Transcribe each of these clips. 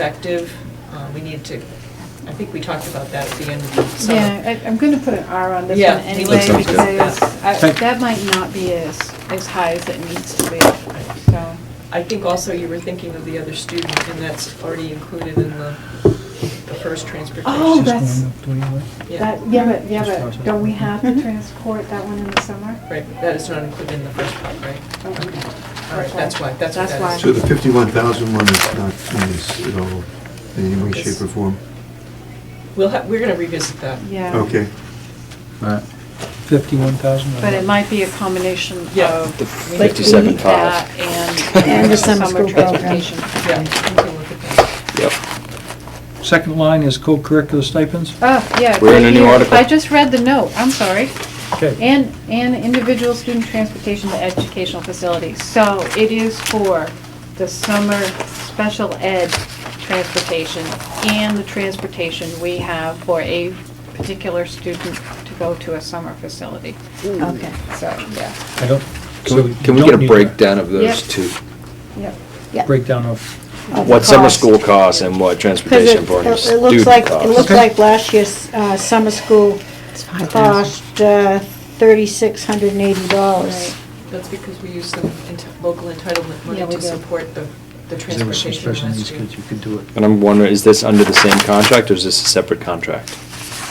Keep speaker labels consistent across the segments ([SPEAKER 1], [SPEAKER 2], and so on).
[SPEAKER 1] effective, uh, we need to, I think we talked about that at the end of the summer.
[SPEAKER 2] Yeah, I- I'm going to put an R on this
[SPEAKER 1] Yeah,
[SPEAKER 2] one
[SPEAKER 1] me
[SPEAKER 2] anyway,
[SPEAKER 3] too. That sounds
[SPEAKER 2] because
[SPEAKER 3] good.
[SPEAKER 2] I-
[SPEAKER 3] Thank-
[SPEAKER 2] that might not be as, as high as it needs to be, so.
[SPEAKER 1] I think also you were thinking of the other student, and that's already included in the, the first transportation.
[SPEAKER 2] Oh, that's,
[SPEAKER 1] Yeah. Mm-hmm.
[SPEAKER 2] that, yeah, but, yeah, but
[SPEAKER 3] Just
[SPEAKER 2] don't we have to transport that one in the summer?
[SPEAKER 1] Right, that is not included in the first part, right?
[SPEAKER 2] Okay.
[SPEAKER 1] All right, that's why, that's what
[SPEAKER 2] That's
[SPEAKER 1] that is.
[SPEAKER 2] why.
[SPEAKER 4] So the 51,000 one is not in this at all, in any way, shape, or form?
[SPEAKER 1] We'll have, we're gonna revisit that.
[SPEAKER 2] Yeah.
[SPEAKER 4] Okay.
[SPEAKER 3] Right. Fifty-one thousand?
[SPEAKER 2] But it might be a combination of.
[SPEAKER 1] Yeah.
[SPEAKER 2] we
[SPEAKER 1] We-
[SPEAKER 2] need
[SPEAKER 5] 57.5.
[SPEAKER 2] that And, and the summer transportation.
[SPEAKER 1] Yeah, we can look at that.
[SPEAKER 5] Yep.
[SPEAKER 3] Second line is co-curricular stipends.
[SPEAKER 2] Oh, yeah. it's
[SPEAKER 5] We're in
[SPEAKER 2] right
[SPEAKER 5] a new
[SPEAKER 2] here.
[SPEAKER 5] article.
[SPEAKER 2] I just read the note, I'm sorry.
[SPEAKER 3] Okay.
[SPEAKER 2] And, and individual student transportation to educational facilities. So it is for the summer special ed transportation and the transportation we have for a particular student to go to a summer facility.
[SPEAKER 6] Okay,
[SPEAKER 2] So, yeah,
[SPEAKER 3] I don't. so
[SPEAKER 5] Can we-
[SPEAKER 3] you
[SPEAKER 5] can we
[SPEAKER 3] don't
[SPEAKER 5] get a
[SPEAKER 3] need
[SPEAKER 5] breakdown of those
[SPEAKER 2] Yep.
[SPEAKER 5] two?
[SPEAKER 2] yeah.
[SPEAKER 6] yeah.
[SPEAKER 3] Breakdown of,
[SPEAKER 6] Of the
[SPEAKER 5] What summer
[SPEAKER 6] cost.
[SPEAKER 5] school costs and what
[SPEAKER 6] Because
[SPEAKER 5] transportation
[SPEAKER 6] it,
[SPEAKER 5] for a
[SPEAKER 6] it looks
[SPEAKER 5] student
[SPEAKER 6] like, it
[SPEAKER 5] costs?
[SPEAKER 6] looks
[SPEAKER 3] Okay.
[SPEAKER 6] like last year's uh, summer school cost uh, $3,680.
[SPEAKER 1] That's because we use some ent- local entitlement money
[SPEAKER 6] Yeah, we
[SPEAKER 1] to
[SPEAKER 6] do.
[SPEAKER 1] support the, the
[SPEAKER 3] there were some
[SPEAKER 1] transportation
[SPEAKER 3] special needs
[SPEAKER 1] last year.
[SPEAKER 3] kids, you could do it.
[SPEAKER 5] And I'm wondering, is this under the same contract or is this a separate contract?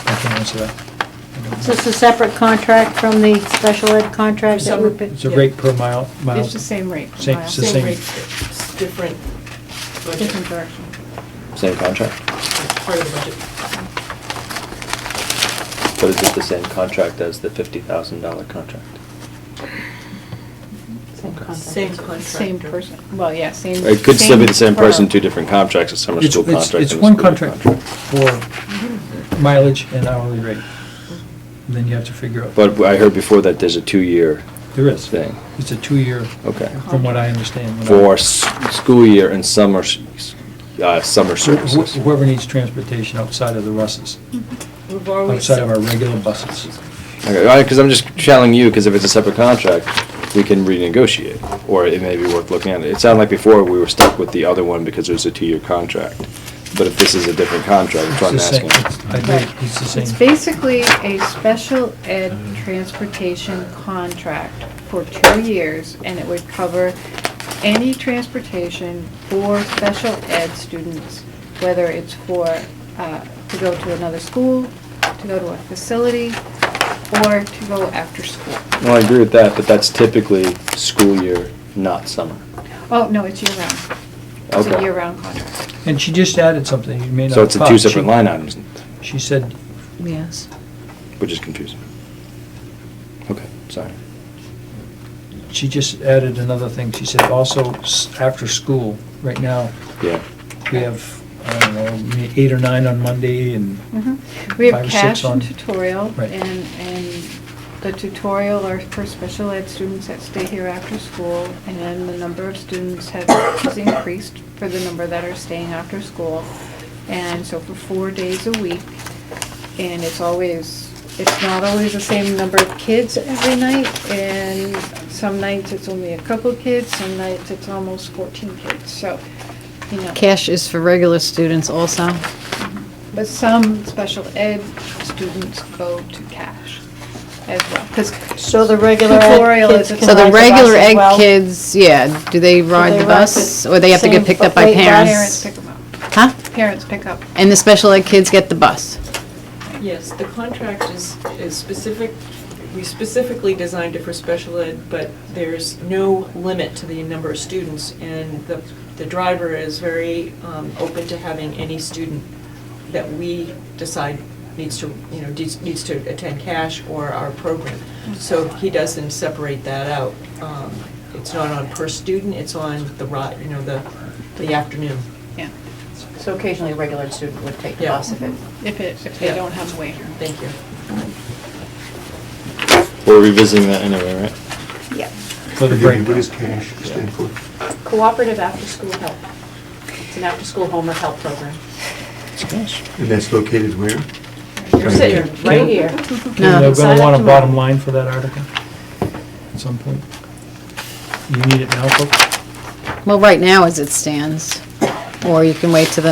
[SPEAKER 3] I can answer that. I don't
[SPEAKER 6] Is
[SPEAKER 3] know.
[SPEAKER 6] this a separate contract from the special ed contract that
[SPEAKER 1] Summer-
[SPEAKER 6] we've been?
[SPEAKER 3] It's a rate per mile, mile.
[SPEAKER 2] It's the same rate.
[SPEAKER 3] Same-
[SPEAKER 2] Miles.
[SPEAKER 3] It's the same-
[SPEAKER 1] rate, it's different budget,
[SPEAKER 2] Different direction.
[SPEAKER 5] Same contract?
[SPEAKER 1] part of the budget.
[SPEAKER 5] But is it the same contract as the fifty thousand dollar contract?
[SPEAKER 1] Same contractor.
[SPEAKER 2] Same person, well, yeah, same.
[SPEAKER 5] It could still be the same person,
[SPEAKER 2] firm.
[SPEAKER 5] two different contracts, a summer
[SPEAKER 3] It's-
[SPEAKER 5] school
[SPEAKER 3] it's-
[SPEAKER 5] contract and a
[SPEAKER 3] It's one
[SPEAKER 5] school year
[SPEAKER 3] contract for mileage and hourly rate. And Then you have to figure out.
[SPEAKER 5] But I heard before that there's a two-year
[SPEAKER 3] There is.
[SPEAKER 5] thing.
[SPEAKER 3] It's a two-year,
[SPEAKER 5] Okay.
[SPEAKER 3] from what I understand. when I-
[SPEAKER 5] For s- school year and summer, s- uh, summer
[SPEAKER 3] Wh-
[SPEAKER 5] services.
[SPEAKER 3] wh- Whoever needs transportation outside of the buses,
[SPEAKER 1] We've always.
[SPEAKER 3] outside of our regular buses.
[SPEAKER 5] Okay, because I'm just challenging you, because if it's a separate contract, we can renegotiate, or it may be worth looking at. It sounded like before we were stuck with the other one because it was a two-year contract. But if this is a different contract, that's what I'm
[SPEAKER 3] It's the same-
[SPEAKER 5] asking.
[SPEAKER 3] it's- I agree, it's the same.
[SPEAKER 2] It's basically a special ed transportation contract for two years, and it would cover any transportation for special ed students, whether it's for, uh, to go to another school, to go to a facility, or to go after school.
[SPEAKER 5] Well, I agree with that, but that's typically school year, not summer.
[SPEAKER 2] Oh, no, it's year-round. It's a
[SPEAKER 5] Okay.
[SPEAKER 2] year-round contract.
[SPEAKER 3] And she just added something, you may not.
[SPEAKER 5] So it's a
[SPEAKER 3] have
[SPEAKER 5] two
[SPEAKER 3] caught.
[SPEAKER 5] separate
[SPEAKER 3] She-
[SPEAKER 5] line items,
[SPEAKER 3] She said,
[SPEAKER 6] Yes.
[SPEAKER 5] which is confusing. Okay, sorry.
[SPEAKER 3] she just added another thing, she said also, s- after school, right now,
[SPEAKER 5] Yeah.
[SPEAKER 3] we have, I don't know, may- eight or nine on Monday and.
[SPEAKER 2] Mhm. We have
[SPEAKER 3] Five or six
[SPEAKER 2] cash and
[SPEAKER 3] on-
[SPEAKER 2] tutorial,
[SPEAKER 3] Right.
[SPEAKER 2] and, and the tutorial are for special ed students that stay here after school, and then the number of students have, is increased for the number that are staying after school, and so for four days a week, and it's always, it's not always the same number of kids every night, and some nights it's only a couple kids, some nights it's almost fourteen kids, so, you know.
[SPEAKER 7] Cash is for regular students also.
[SPEAKER 2] But some special ed students go to cash as well, because
[SPEAKER 6] So the regular ed
[SPEAKER 2] Tutorial is
[SPEAKER 6] kids
[SPEAKER 2] a-
[SPEAKER 6] can
[SPEAKER 7] So
[SPEAKER 6] ride
[SPEAKER 7] the
[SPEAKER 6] the bus
[SPEAKER 7] regular
[SPEAKER 6] as
[SPEAKER 7] egg
[SPEAKER 6] well?
[SPEAKER 7] kids, yeah, do they ride
[SPEAKER 6] they
[SPEAKER 7] the
[SPEAKER 6] ride
[SPEAKER 7] bus
[SPEAKER 6] the
[SPEAKER 7] or they have to
[SPEAKER 6] same
[SPEAKER 7] get picked up by
[SPEAKER 6] bu- wait,
[SPEAKER 2] parents
[SPEAKER 7] parents?
[SPEAKER 2] pick them up.
[SPEAKER 7] Huh?
[SPEAKER 2] Parents pick up.
[SPEAKER 7] And the special ed kids get the bus?
[SPEAKER 1] Yes, the contract is, is specific, we specifically designed it for special ed, but there's no limit to the number of students, and the, the driver is very um, open to having any student that we decide needs to, you know, needs needs to attend cash or our program. So he doesn't separate that out. Um, It's not on per student, it's on the ride, you know, the, the afternoon.
[SPEAKER 2] Yeah,
[SPEAKER 8] So occasionally, a regular student would take the
[SPEAKER 1] Yeah.
[SPEAKER 8] bus if it
[SPEAKER 2] if it, if they
[SPEAKER 1] Yeah.
[SPEAKER 2] don't have a waiter.
[SPEAKER 1] Thank you.
[SPEAKER 5] We're revisiting that anyway, right?
[SPEAKER 6] Yeah.
[SPEAKER 3] For the
[SPEAKER 4] Forgive me, What
[SPEAKER 3] breakdown.
[SPEAKER 4] is cash stand for?
[SPEAKER 8] Cooperative after-school help. It's an after-school homework help program.
[SPEAKER 4] And that's located where?
[SPEAKER 8] You're sitting right here.
[SPEAKER 3] They're
[SPEAKER 7] No.
[SPEAKER 3] going
[SPEAKER 8] Sign
[SPEAKER 3] to
[SPEAKER 8] up
[SPEAKER 3] want a
[SPEAKER 8] tomorrow.
[SPEAKER 3] bottom line for that article at some point. You need it now, folks?
[SPEAKER 7] Well, right now as it stands, or you can wait till the